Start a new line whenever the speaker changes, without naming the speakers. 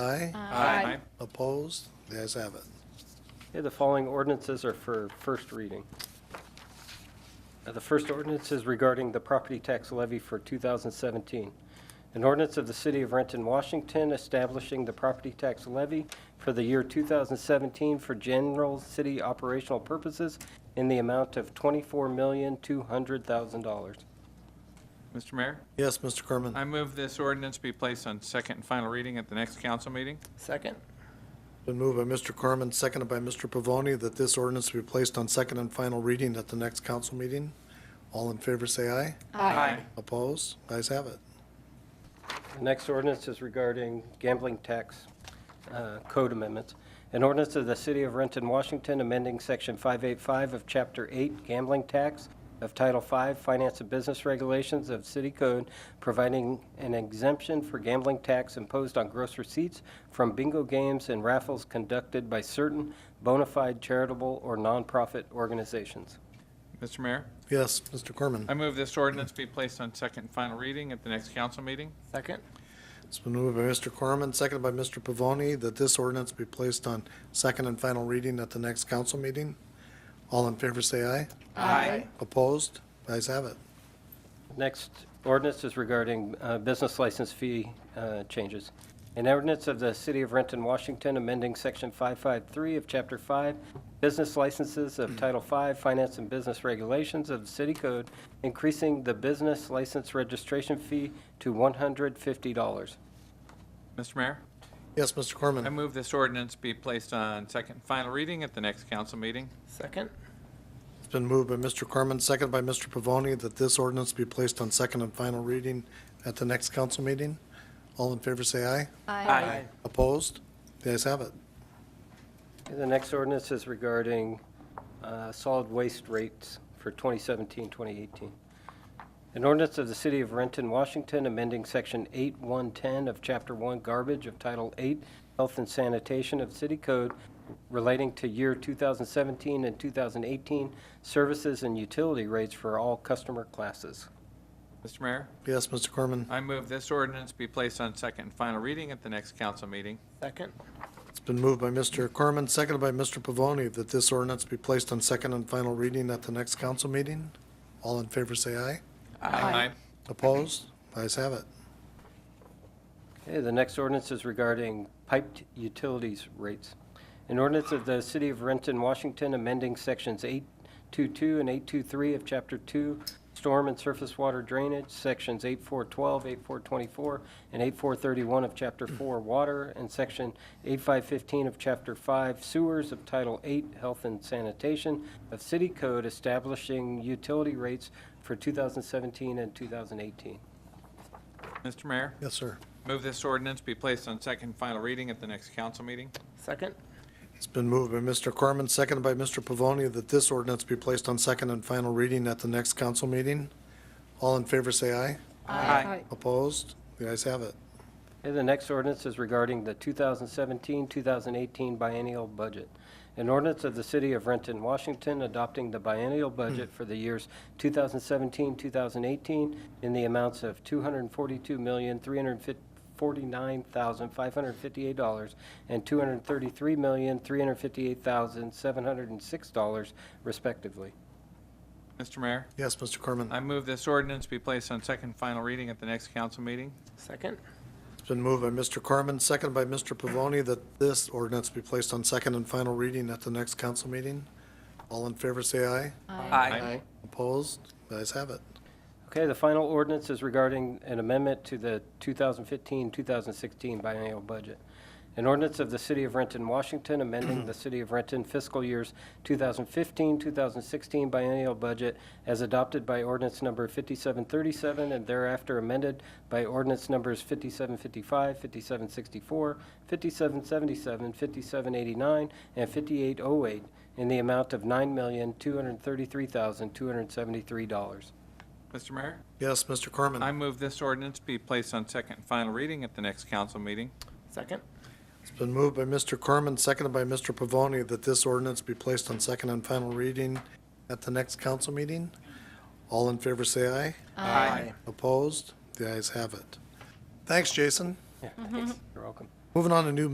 Aye.
Aye.
Opposed? The ayes have it.
Okay, the following ordinances are for first reading. Uh, The first ordinance is regarding the property tax levy for 2017. An ordinance of the City of Renton, Washington, establishing the property tax levy for the year 2017 for general city operational purposes in the amount of $24,200,000.
Mr. Mayor,
Yes, Mr. Corman.
I move this ordinance be placed on second and final reading at the next council meeting.
Second?
Been moved by Mr. Corman, seconded by Mr. Pavoni, that this ordinance be placed on second and final reading at the next council meeting. All in favor, say aye. Opposed? The ayes have it.
The next ordinance is regarding gambling tax uh, code amendments. An ordinance of the City of Renton, Washington, amending Section 585 of Chapter 8 Gambling Tax of Title 5 Finance and Business Regulations of City Code, providing an exemption for gambling tax imposed on gross receipts from bingo games and raffles conducted by certain bona fide charitable or nonprofit organizations.
Mr. Mayor,
Yes, Mr. Corman.
I move this ordinance be placed on second and final reading at the next council meeting.
Second?
It's been moved by Mr. Corman, seconded by Mr. Pavoni, that this ordinance be placed on second and final reading at the next council meeting. All in favor, say aye.
Aye.
Opposed? The ayes have it.
Next ordinance is regarding uh, business license fee uh, changes. An ordinance of the City of Renton, Washington, amending Section 553 of Chapter 5, Business Licenses of Title 5, Finance and Business Regulations of the City Code, increasing the business license registration fee to $150.
Mr. Mayor,
Yes, Mr.
I
Corman.
move this ordinance be placed on second and final reading at the next council meeting.
Second?
It's been moved by Mr. Corman, seconded by Mr. Pavoni, that this ordinance be placed on second and final reading at the next council meeting. All in favor, say aye.
Aye.
Opposed? The ayes have it.
The next ordinance is regarding uh, solid waste rates for 2017, 2018. An ordinance of the City of Renton, Washington, amending Section 8110 of Chapter 1 Garbage of Title 8 Health and Sanitation of City Code relating to year 2017 and 2018 services and utility rates for all customer classes.
Mr. Mayor,
Yes, Mr. Corman.
I move this ordinance be placed on second and final reading at the next council meeting.
Second?
It's been moved by Mr. Corman, seconded by Mr. Pavoni, that this ordinance be placed on second and final reading at the next council meeting. All in favor, say aye.
Aye.
Opposed? The ayes have it.
Okay, the next ordinance is regarding piped utilities rates. An ordinance of the City of Renton, Washington, amending Sections 822 and 823 of Chapter 2, Storm and Surface Water Drainage, Sections 8412, 8424, and 8431 of Chapter 4, Water, and Section 8515 of Chapter 5, Sewers of Title 8, Health and Sanitation of City Code, establishing utility rates for 2017 and 2018.
Mr. Mayor,
Yes, sir.
move this ordinance be placed on second and final reading at the next council meeting.
Second?
It's been moved by Mr. Corman, seconded by Mr. Pavoni, that this ordinance be placed on second and final reading at the next council meeting. All in favor, say aye.
Aye.
Opposed? The ayes have it.
Okay, the next ordinance is regarding the 2017-2018 biennial budget. An ordinance of the City of Renton, Washington, adopting the biennial budget for the years 2017-2018 in the amounts of $242,349,558 and $233,358,706 respectively.
Mr. Mayor,
Yes, Mr. Corman.
I move this ordinance be placed on second and final reading at the next council meeting.
Second?
It's been moved by Mr. Corman, seconded by Mr. Pavoni, that this ordinance be placed on second and final reading at the next council meeting. All in favor, say aye.
Aye.
Opposed? The ayes have it.
Okay, the final ordinance is regarding an amendment to the 2015-2016 biennial budget. An ordinance of the City of Renton, Washington, amending the City of Renton fiscal years 2015-2016 biennial budget as adopted by ordinance number 5737 and thereafter amended by ordinance numbers 5755, 5764, 5777, 5789, and 5808 in the amount of $9,233,273.
Mr. Mayor,
Yes, Mr. Corman.
I move this ordinance be placed on second and final reading at the next council meeting.
Second?
It's been moved by Mr. Corman, seconded by Mr. Pavoni, that this ordinance be placed on second and final reading at the next council meeting. All in favor, say aye.
Aye.
Opposed? The ayes have it. Thanks, Jason.
You're welcome.
Moving on to new